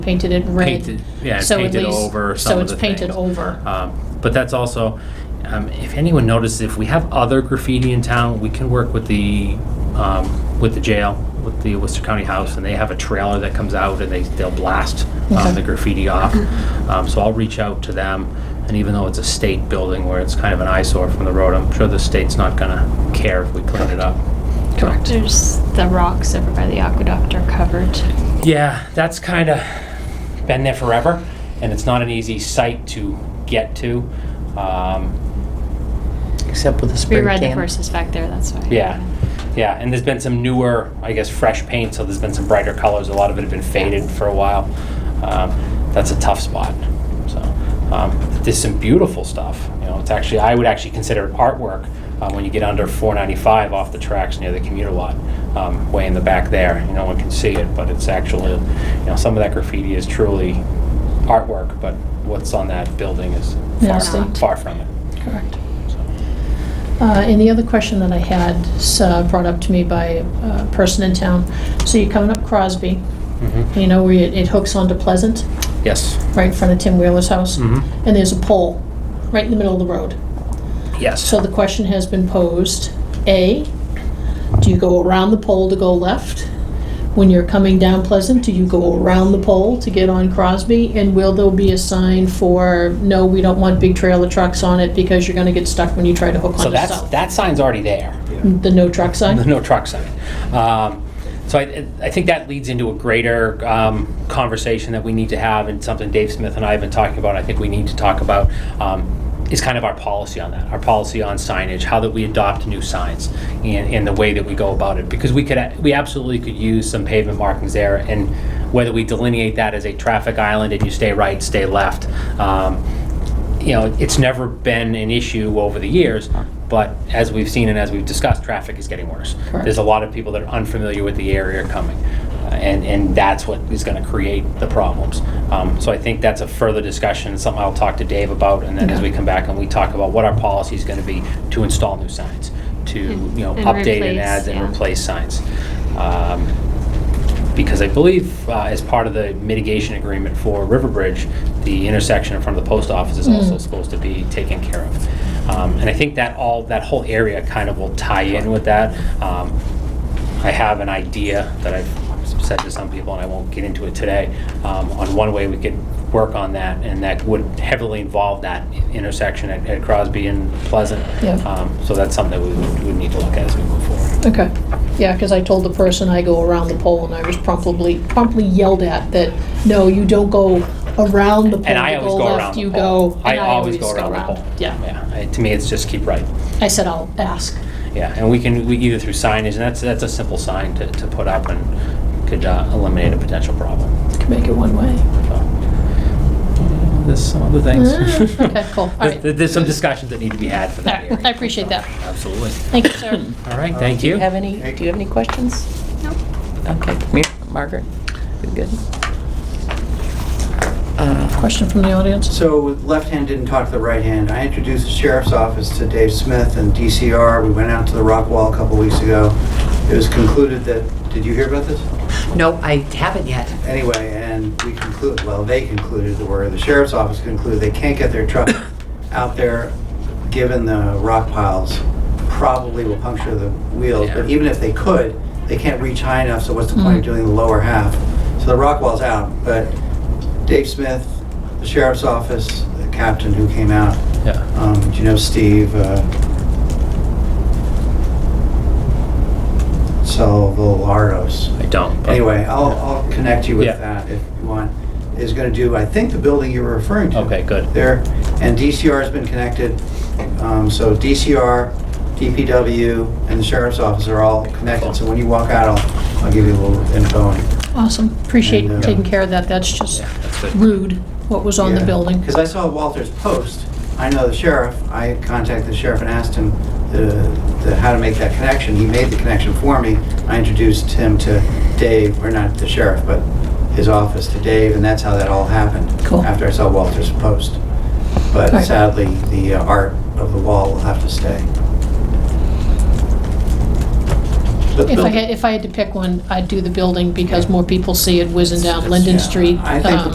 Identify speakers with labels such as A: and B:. A: painted it red.
B: painted, yeah,
A: So at
B: painted
A: least-
B: over
A: So
B: some of
A: it's
B: the
A: painted
B: things.
A: over.
B: Um, But that's also, um, if anyone notices, if we have other graffiti in town, we can work with the, um, with the jail, with the Worcester County House, and they have a trailer that comes out and they, they'll blast um,
A: Okay.
B: the graffiti off. Um, So I'll reach out to them, and even though it's a state building where it's kind of an eyesore from the road, I'm sure the state's not gonna care if we clean it up.
A: Correct.
C: There's the rocks over by the aqueduct are covered.
B: Yeah, that's kind of been there forever, and it's not an easy site to get to. Um,
D: Except with the
C: We
D: spray
C: ride the
D: can.
C: horses back there, that's why.
B: yeah, yeah, and there's been some newer, I guess, fresh paint, so there's been some brighter colors. A lot of it had been faded for a while. Um, that's a tough spot. So um, there's some beautiful stuff. You know, it's actually I would actually consider it artwork uh, when you get under 495 off the tracks near the commuter lot, um, way in the back there. You know, one can see it, but it's actually, you know, some of that graffiti is truly artwork, but what's on that building is
A: Yeah,
B: far,
A: see.
B: far from it.
A: Correct.
B: So.
A: Uh, And the other question that I had, s- uh, brought up to me by a person in town. So you're coming up Crosby,
B: Mhm.
A: you know, where it it hooks onto Pleasant,
B: Yes.
A: right in front of Tim Wheeler's house.
B: Mhm.
A: And there's a pole right in the middle of the road.
B: Yes.
A: So the question has been posed, A, do you go around the pole to go left? When you're coming down Pleasant, do you go around the pole to get on Crosby? And will there be a sign for, no, we don't want big trailer trucks on it because you're gonna get stuck when you try to hook
B: So
A: onto
B: that's,
A: South?
B: that sign's already there,
A: The no truck
B: the
A: sign?
B: no truck sign. Um, So I, I think that leads into a greater um, conversation that we need to have and something Dave Smith and I have been talking about, I think we need to talk about, um, is kind of our policy on that, our policy on signage, how that we adopt new signs and, and the way that we go about it. Because we could, a- we absolutely could use some pavement markings there and whether we delineate that as a traffic island and you stay right, stay left, um, you know, it's never been an issue over the years, but as we've seen and as we've discussed, traffic is getting worse.
A: Correct.
B: There's a lot of people that are unfamiliar with the area coming, uh, and, and that's what is gonna create the problems. Um, So I think that's a further discussion, something I'll talk to Dave about, and then as we come back and we talk about what our policy is gonna be to install new signs, to,
C: And-
B: you know,
C: and
B: update
C: replace,
B: and add and
C: yeah.
B: replace signs. Um, because I believe uh, as part of the mitigation agreement for Riverbridge, the intersection in front of the post office is also supposed to be taken care of. Um, And I think that all, that whole area kind of will tie in with that. Um, I have an idea that I've said to some people, and I won't get into it today, um, on one way we could work on that, and that would heavily involve that intersection at at Crosby and Pleasant.
A: Yeah.
B: Um, So that's something that we would- would need to look at as we move forward.
A: Okay, yeah, because I told the person I go around the pole and I was promptly, promptly yelled at that, no, you don't go around the pole
B: And I
A: to
B: always go around
A: left,
B: the
A: you
B: pole.
A: go.
B: I
A: and
B: always go around the pole.
A: Yeah,
B: Yeah, I- to me, it's just keep right.
A: I said I'll ask.
B: Yeah, and we can, we either through signage, and that's, that's a simple sign to, to put up and could uh, eliminate a potential problem.
A: Make it one way.
B: So, There's some other things.
A: Ah, okay, cool. All right.
B: There- There's some discussions that need to be had for
A: All
B: that
A: right, I
B: area.
A: appreciate that. Uh,
B: Absolutely.
A: Thank you, sir.
B: All right, thank you.
D: Have any, do you have any questions?
C: Nope.
D: Okay, come here, Margaret. You're good. Uh,
A: Question from the audience?
E: So left hand didn't talk to the right hand. I introduced the sheriff's office to Dave Smith and DCR. We went out to the rock wall a couple weeks ago. It was concluded that, did you hear about this?
D: No, I haven't yet.
E: Anyway, and we concluded, well, they concluded, the word, the sheriff's office concluded, they can't get their truck out there, given the rock piles, probably will puncture the wheels. But
B: Yeah. Hmm.
E: even if they could, they can't reach high enough, so what's the point of doing the lower half? So the rock wall's out, but Dave Smith, the sheriff's office, the captain who came out,
B: Yeah.
E: um, do you know Steve? Uh, Salvolaros.
B: I don't. but-
E: Anyway, I'll, I'll connect you with
B: Yeah.
E: that if you want, is gonna do, I think, the building you were referring to.
B: Okay, good.
E: There, and DCR's been connected, um, so DCR, DPW, and the sheriff's office are all connected, so when you walk out, I'll, I'll give you a little info. and-
A: Awesome. Appreciate
E: And, uh,
A: taking care of that. That's just
B: Yeah, that's good.
A: rude, what was on the
E: Yeah.
A: building.
E: Cause I saw Walter's post, I know the sheriff, I contacted the sheriff and asked him the, the, how to make that connection, he made the connection for me. I introduced him to Dave, or not the sheriff, but his office to Dave, and that's how that all happened.
A: Cool.
E: After I saw Walter's post. But
A: Right.
E: sadly, the uh, art of the wall will have to stay.
A: If
E: So The
A: I
E: building-
A: had, if I had to pick one, I'd do the building because more people see it whizzing down Linden
E: Yeah,
A: Street.
E: I think the
A: um,